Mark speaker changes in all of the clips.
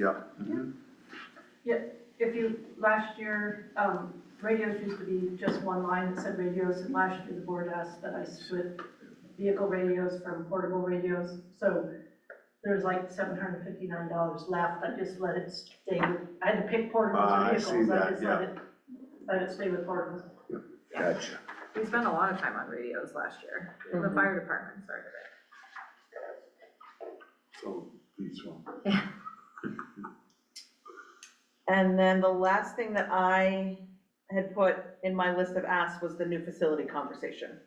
Speaker 1: Yeah. Mm-hmm.
Speaker 2: If you, last year, um, radios used to be just one line that said radios, and last year the board asked that I split vehicle radios from portable radios, so there's like seven hundred fifty-nine dollars left, I just let it stay, with- I had to pick
Speaker 1: Ah,
Speaker 2: portables
Speaker 1: I
Speaker 2: or
Speaker 1: see
Speaker 2: vehicles, I
Speaker 1: that,
Speaker 2: just let it, let it stay with portables.
Speaker 1: Gotcha.
Speaker 3: We spent a lot of time on radios last year,
Speaker 1: Mhm.
Speaker 3: the fire department started it.
Speaker 1: So these one.
Speaker 4: And then the last thing that I had put in my list of asks was the new facility conversation.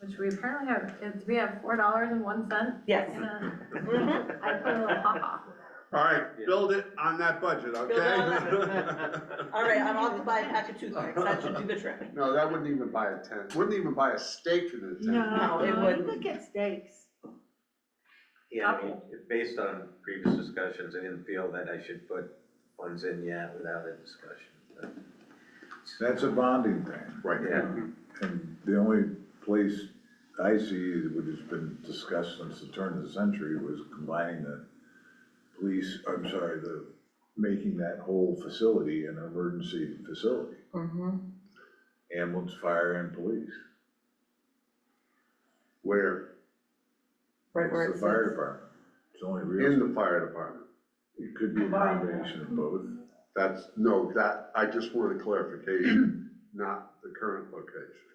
Speaker 3: Which we apparently have, it's, we have four dollars and one cent
Speaker 4: Yes.
Speaker 3: in a,
Speaker 4: Mhm.
Speaker 3: I put a little ha-ha.
Speaker 1: All right, build it on that budget,
Speaker 4: it
Speaker 1: okay?
Speaker 4: All right, I'm off to buy a pack of toothpicks, that should do the trick.
Speaker 1: No, that wouldn't even buy a tent, wouldn't even buy a steak in a tent.
Speaker 4: No, it
Speaker 3: would.
Speaker 4: wouldn't.
Speaker 3: Look at steaks.
Speaker 5: Yeah, I mean, if- based on previous discussions, I didn't feel that I should put funds in yet without a discussion, but.
Speaker 6: That's a bonding thing,
Speaker 1: Right.
Speaker 5: Yeah.
Speaker 6: and the only place I see which has been discussed since the turn of the century was combining the police, I'm sorry, the, making that whole facility an emergency facility,
Speaker 4: Mhm.
Speaker 6: ambulance, fire, and police.
Speaker 1: Where,
Speaker 4: Right where
Speaker 6: It's
Speaker 4: it
Speaker 6: the fire
Speaker 4: says.
Speaker 6: department, it's only
Speaker 1: in
Speaker 6: real,
Speaker 1: the fire department,
Speaker 6: it could be a combination of both.
Speaker 1: that's, no, that, I just wanted clarification, not the current location.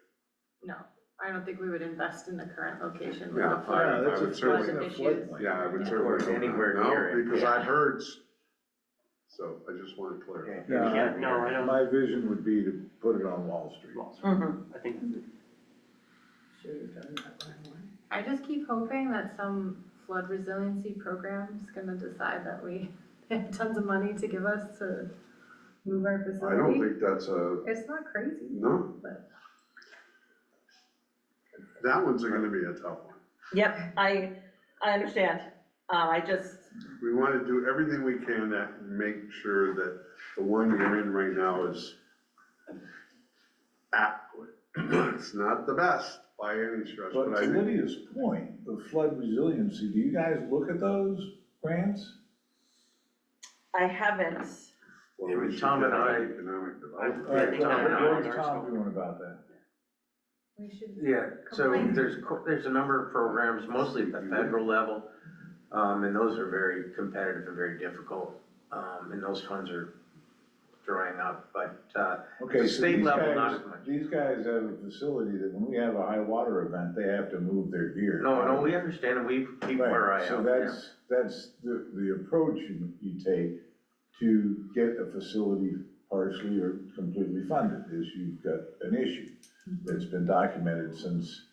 Speaker 3: No, I don't think we would invest in the current location with
Speaker 1: Yeah,
Speaker 3: the fire.
Speaker 1: I would
Speaker 6: Yeah, that's a-
Speaker 1: certainly-
Speaker 6: that's a
Speaker 3: Issues.
Speaker 6: floodplain.
Speaker 1: Yeah, I would
Speaker 3: Yeah.
Speaker 1: certainly.
Speaker 5: Or
Speaker 1: hope not.
Speaker 5: anywhere
Speaker 1: No,
Speaker 5: near it,
Speaker 1: Because
Speaker 3: yeah.
Speaker 1: I heard, s- so I just wanted to clarify.
Speaker 5: Yeah,
Speaker 6: Yeah,
Speaker 5: you can't-
Speaker 6: I-
Speaker 7: No, I don't,
Speaker 6: My vision would be to put it on Wall Street.
Speaker 4: Mhm.
Speaker 7: I think,
Speaker 3: I just keep hoping that some flood resiliency program is gonna decide that we have tons of money to give us to move our
Speaker 1: I
Speaker 3: facility.
Speaker 1: don't think that's a,
Speaker 3: It's not crazy.
Speaker 1: no.
Speaker 3: But-
Speaker 1: That one's gonna be a tough one.
Speaker 4: Yep, I, I understand. Uh, I just,
Speaker 1: We wanna do everything we can to make sure that the one you're in right now is adequate. It's not the best by any stretch,
Speaker 6: But
Speaker 1: but I
Speaker 6: to
Speaker 1: think,
Speaker 6: Lydia's point, the flood resiliency, do you guys look at those grants?
Speaker 4: I haven't,
Speaker 1: well, we should get
Speaker 7: Tom and I-
Speaker 1: an economic development.
Speaker 7: I think
Speaker 6: Alright,
Speaker 7: I know
Speaker 6: what
Speaker 7: ours,
Speaker 6: is
Speaker 7: so-
Speaker 6: Tom doing about that?
Speaker 3: We should.
Speaker 5: Yeah, so
Speaker 3: Complain.
Speaker 5: there's, co- there's a number of programs, mostly at the federal level, um, and those are very competitive and very difficult. Um, and those funds are drying up, but, uh,
Speaker 6: Okay, so
Speaker 5: state
Speaker 6: these
Speaker 5: level, not
Speaker 6: guys,
Speaker 5: as much.
Speaker 6: these guys have a facility that when we have a high water event, they have to move their gear.
Speaker 5: no, no, we understand, and we keep
Speaker 6: Right,
Speaker 5: our eye out.
Speaker 6: So
Speaker 5: yeah.
Speaker 6: that's, that's the, the approach you, you take to get a facility partially or completely funded, is you've got an issue that's been documented since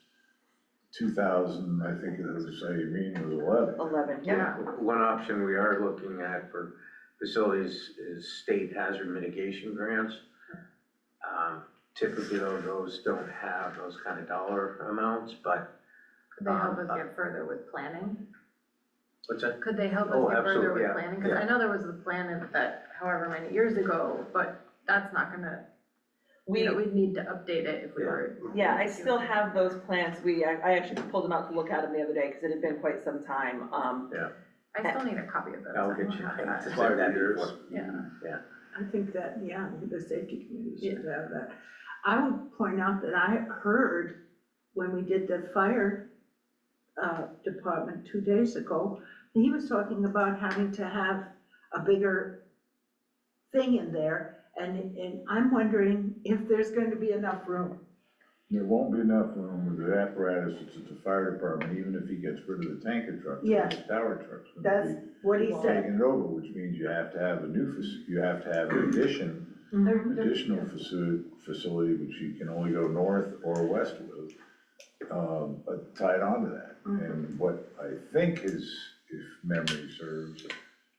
Speaker 6: two thousand, I think it was, Irene was eleven.
Speaker 4: eleven, yep.
Speaker 3: Yeah,
Speaker 5: One option we are looking at for facilities is state hazard mitigation grants. Um, Typically, though, those don't have those kind of dollar amounts, but
Speaker 3: could they help us get further with planning?
Speaker 5: what's that?
Speaker 3: Could they help us
Speaker 5: Oh,
Speaker 3: get further
Speaker 5: absolutely,
Speaker 3: with
Speaker 5: yeah,
Speaker 3: planning? Cause
Speaker 5: yeah.
Speaker 3: I know there was the plan of that however many years ago, but that's not gonna, you
Speaker 4: We,
Speaker 3: know, we'd need to update it if we were.
Speaker 4: yeah, I still have those plans. We, I I actually pulled them out to look at them the other day because it had been quite some time. Um,
Speaker 3: I still need a copy of those.
Speaker 5: I'll get you
Speaker 3: I don't
Speaker 5: to
Speaker 3: have
Speaker 5: say
Speaker 3: that.
Speaker 1: Five
Speaker 5: that
Speaker 1: years.
Speaker 5: before.
Speaker 3: Yeah.
Speaker 8: I think that, yeah, the safety committee should have that. I would point out that I heard when we did the fire uh, department two days ago, he was talking about having to have a bigger thing in there. And, and I'm wondering if there's going to be enough room.
Speaker 6: There won't be enough room with the apparatus that's at the fire department, even if he gets rid of the tanker truck,
Speaker 8: Yeah.
Speaker 6: the tower truck's gonna
Speaker 8: That's
Speaker 6: be
Speaker 8: what he said.
Speaker 6: taking it over, which means you have to have a new, faci- you have to have an addition,
Speaker 2: Mm-hmm. Mhm.
Speaker 6: additional facility, facility, which you can only go north or west with, um, but tied onto that. And what I think is, if memory serves,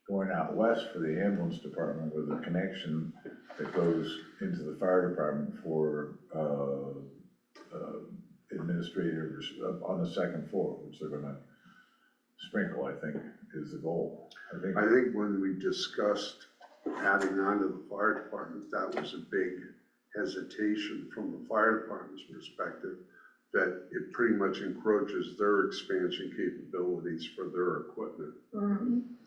Speaker 6: going out west for the ambulance department with a connection that goes into the fire department for, uh, uh, administrators up on the second floor, which they're gonna sprinkle, I think, is the goal. I think
Speaker 1: I think when we discussed adding on to the fire department, that was a big hesitation from the fire department's perspective, that it pretty much encroaches their expansion capabilities for their equipment.
Speaker 8: Mhm.